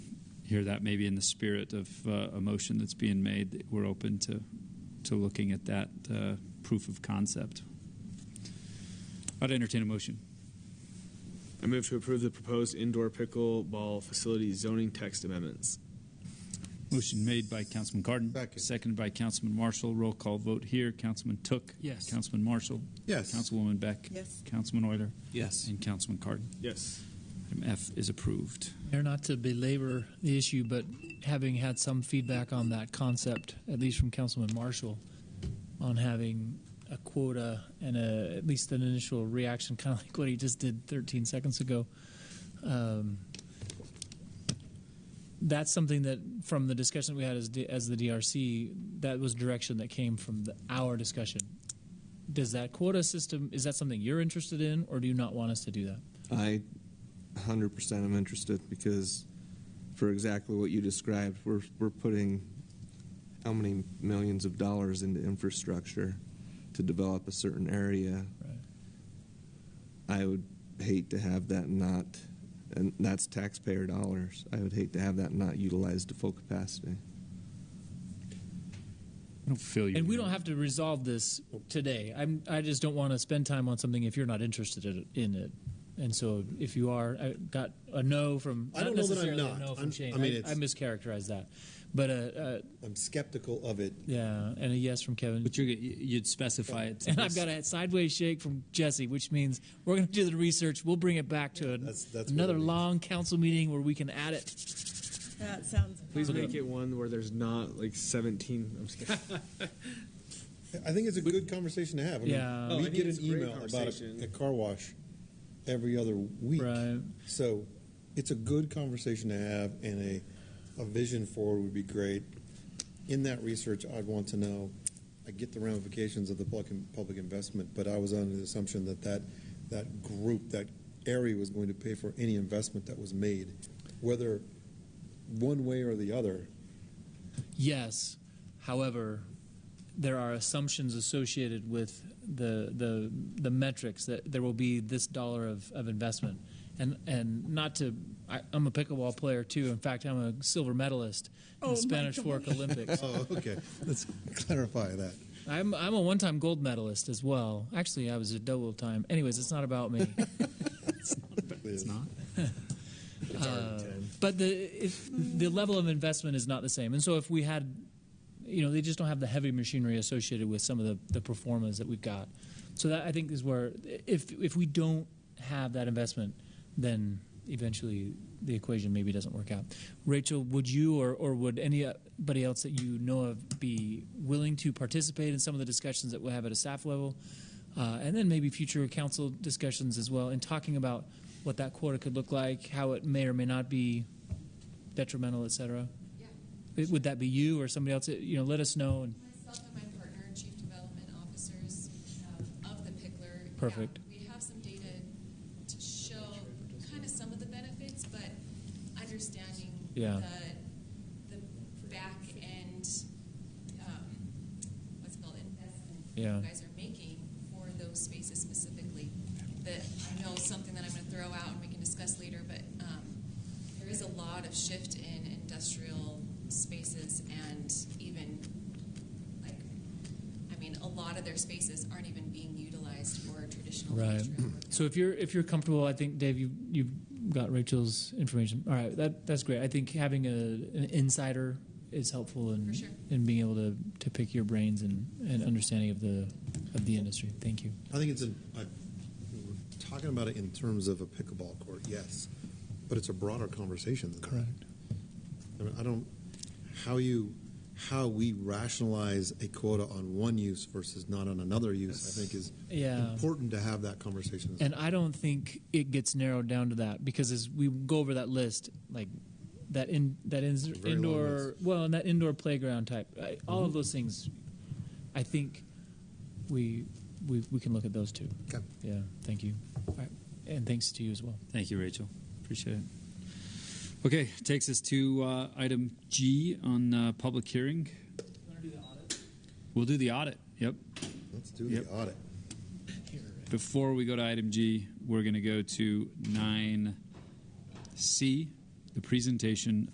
hear that maybe in the spirit of uh, a motion that's being made, that we're open to, to looking at that uh, proof of concept. I'd entertain a motion. I move to approve the proposed indoor pickleball facility zoning text amendments. Motion made by Councilman Cardon. Second. Seconded by Councilman Marshall. Roll call vote here. Councilman Took. Yes. Councilman Marshall. Yes. Councilwoman Beck. Yes. Councilman Euler. Yes. And Councilman Cardon. Yes. Item F is approved. Mayor, not to belabor the issue, but having had some feedback on that concept, at least from Councilman Marshall, on having a quota and a, at least an initial reaction, kind of like what he just did 13 seconds ago. Um, that's something that, from the discussion we had as, D, as the DRC, that was direction that came from the, our discussion. Does that quota system, is that something you're interested in, or do you not want us to do that? I 100% am interested because for exactly what you described, we're, we're putting how many millions of dollars into infrastructure to develop a certain area. Right. I would hate to have that not, and that's taxpayer dollars. I would hate to have that not utilized to full capacity. I don't feel you. And we don't have to resolve this today. I'm, I just don't want to spend time on something if you're not interested in- in it. And so if you are, I got a no from. I don't know not that I'm necessarily a not. no from I'm- Shane. I mean, I, it's- I mischaracterized that, but uh, uh, I'm skeptical of it. yeah, and a yes from Kevin. But you're, you'd specify it. To and I've this. got a sideways shake from Jesse, which means we're going to do the research. We'll bring it back to an, That's- that's what another it means. long council meeting where we can add it. That sounds. Please fun. make it one where there's not like 17. I'm just kidding. I think it's a good conversation to have. I mean, Yeah. Oh, I we think get it's an a great email about conversation. a, a car wash every other week, Right. so it's a good conversation to have, and a a vision forward would be great. In that research, I'd want to know. I get the ramifications of the public public investment, but I was under the assumption that that that group that area was going to pay for any investment that was made, whether one way or the other. Yes. However, there are assumptions associated with the the the metrics that there will be this dollar of, of investment. And and not to I, I'm a pickleball player too. In fact, I'm a silver medalist in Oh, my the Spanish Fork Olympics. Oh, okay. Let's clarify that. I'm I'm a one-time gold medalist as well. Actually, I was a double time. Anyways, it's not about me. It's not. Uh, But the if the level of investment is not the same, and so if we had, you know, they just don't have the heavy machinery associated with some of the the performers that we've got. So that I think is where if if we don't have that investment, then eventually the equation maybe doesn't work out. Rachel, would you or or would anybody else that you know of be willing to participate in some of the discussions that we'll have at a staff level? uh, and then maybe future council discussions as well, and talking about what that quota could look like, how it may or may not be detrimental, et cetera. It- Would that be you or somebody else? You know, let us know. And Myself and my partner, chief development officers um, of the Pickler. yeah, Perfect. We have some data to show kind of some of the benefits, but understanding Yeah. the, the back end, um, what's it called, investment Yeah. you guys are making for those spaces specifically. That I know is something that I'm going to throw out and we can discuss later, but um, there is a lot of shift in industrial spaces and even like, I mean, a lot of their spaces aren't even being utilized for traditional right. industrial. work. So if you're if you're comfortable, I think Dave, you you've got Rachel's information. All right, that that's great. I think having a an insider is helpful in For sure. in being able to, to pick your brains and, and understanding of the of the industry. Thank you. I think it's in, I, we're talking about it in terms of a pickleball court, yes, but it's a broader conversation than that. I mean, I don't, how you, how we rationalize a quota on one use versus not on another use, I think is Yeah. important to have that conversation. And I don't think it gets narrowed down to that because as we go over that list, like that in that in, very long Mm-hmm. indoor well, and that indoor playground type, I, all of those things, I think we we we can look at those too. Okay. Yeah. Thank you. All right. And thanks to you as well. Thank you, Rachel. Appreciate it. Okay, takes us to uh, item G on uh, public hearing. We'll do the audit. Yep. Let's do Yep. the audit. Before we go to item G, we're going to go to 9C, the presentation